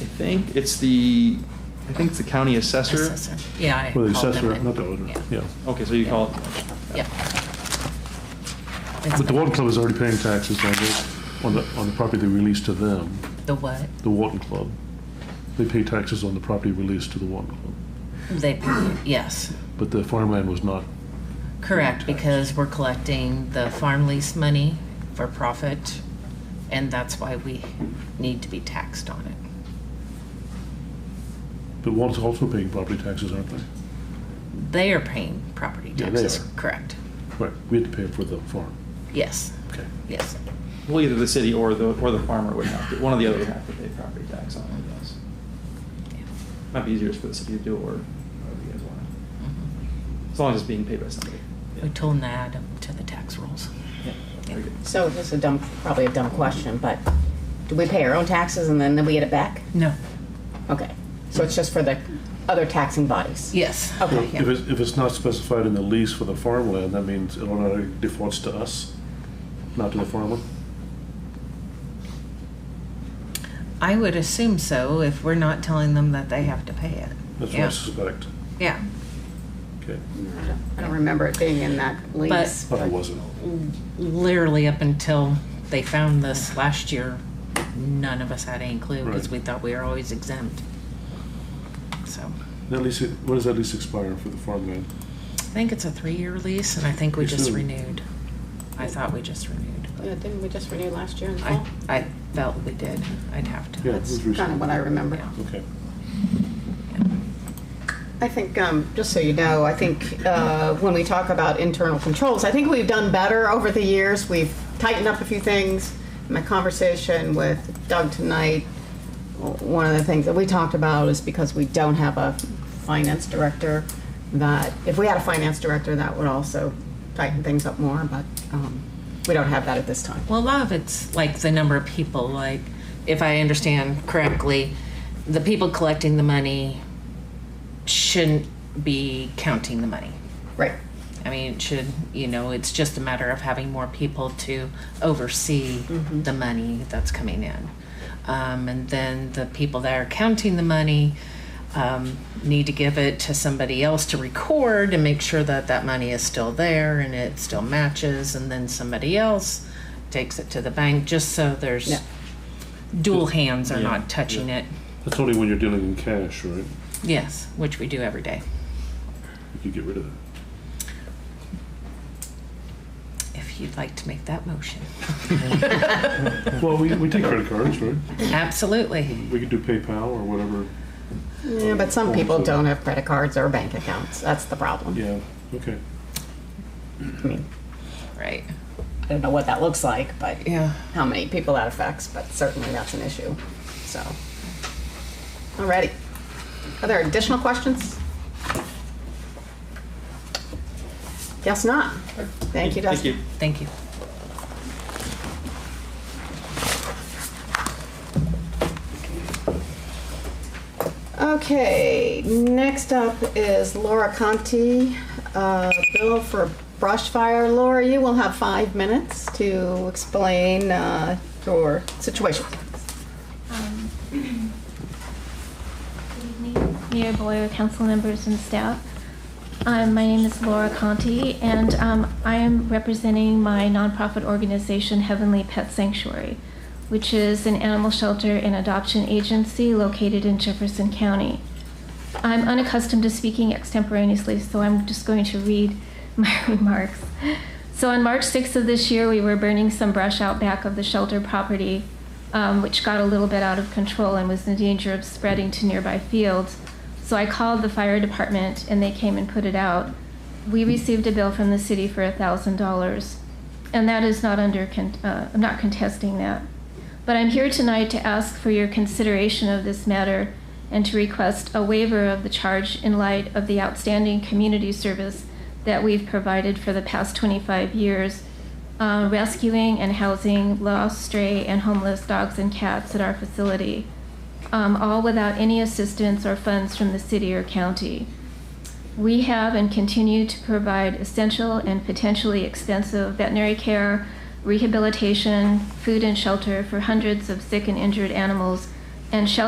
I think it's the, I think it's the county assessor. Assessor. Yeah, I Well, the called them assessor, in. not the owner, yeah. Okay, so you call it, Yeah. It's But the Walton Club is already paying taxes on the, on the, on the property they released to them, The what? the Walton Club. They pay taxes on the property released to the Walton Club, They, yes, but the farmland was not, correct, because we're collecting the farm lease money for profit, and that's why we need to be taxed on it. but Walton's also paying property taxes, aren't they? They are paying property Yeah, they taxes, are. correct? Right, we had to pay for the farm, Yes, okay. yes. well, either the city or the, or the farmer would have to, one or the other would have to pay property tax on it, I guess. Might be easier just for the city to do, or however you guys want it. As long as it's being paid by somebody. Mm-hmm. We told them to add them to the tax rules. Yeah, very good. So this is a dumb, probably a dumb question, but do we pay our own taxes and then, then we get it back? No. Okay, so it's just for the other taxing bodies? Yes, Okay, If yeah. it's, if it's not specified in the lease for the farmland, that means it automatically defaults to us, not to the farmer? I would assume so if we're not telling them that they have to pay it. That's what Yeah. I suspect, Yeah, okay. I don't remember it being in that lease. But it wasn't. literally up until they found this last year, none of us had any clue because Right. we thought we were always exempt. So That lease, when does that lease expire for the farmland? I think it's a three-year lease, and I think we Pretty just soon. renewed. I thought we just renewed. Yeah, didn't we just renew last year in the I, fall? I felt we did. I'd have to. Yeah, it That's was kind of recent. what I remember. Yeah. Okay. I think, um, just so you know, I think uh, when we talk about internal controls, I think we've done better over the years. We've tightened up a few things. My conversation with Doug tonight, w- one of the things that we talked about is because we don't have a finance director, that if we had a finance director, that would also tighten things up more, but um, we don't have that at this time. Well, a lot of it's like the number of people, like, if I understand correctly, the people collecting the money shouldn't be counting the money. Right. I mean, it should, you know, it's just a matter of having more people to oversee the money that's coming in. Um, and then the people that are counting the money um, need to give it to somebody else to record and make sure that that money is still there and it still matches. And then somebody else takes it to the bank just so there's Yeah. dual hands are Yeah, not touching it. That's only when you're dealing in cash, right? Yes, which we do every day You could get rid of that. if you'd like to make that motion. Well, we, we take credit cards, right? Absolutely. We could do PayPal or whatever. Yeah, but some people don't have credit cards or bank accounts. That's the problem. Yeah, okay. Right. I don't know what that looks like, but. Yeah. how many people that affects, but certainly that's an issue, so. Alrighty. Are there additional questions? Guess not. Thank you, Thank you. Dustin. Thank you. Okay, next up is Laura Conti, uh, bill for brush fire. Laura, you will have five minutes to explain uh, your situation. Um, Good evening, Mayor Boyer, council members and staff. Um, My name is Laura Conti, and um, I am representing my nonprofit organization Heavenly Pet Sanctuary, which is an animal shelter and adoption agency located in Jefferson County. I'm unaccustomed to speaking extemporaneously, so I'm just going to read my remarks. So on March 6th of this year, we were burning some brush out back of the shelter property, um, which got a little bit out of control and was in danger of spreading to nearby fields. So I called the fire department and they came and put it out. We received a bill from the city for $1,000. And that is not under, con- uh, I'm not contesting that. But I'm here tonight to ask for your consideration of this matter and to request a waiver of the charge in light of the outstanding community service that we've provided for the past 25 years, uh, rescuing and housing lost, stray, and homeless dogs and cats at our facility, um, all without any assistance or funds from the city or county. We have and continue to provide essential and potentially expensive veterinary care, rehabilitation, food and shelter for hundreds of sick and injured animals, and shelter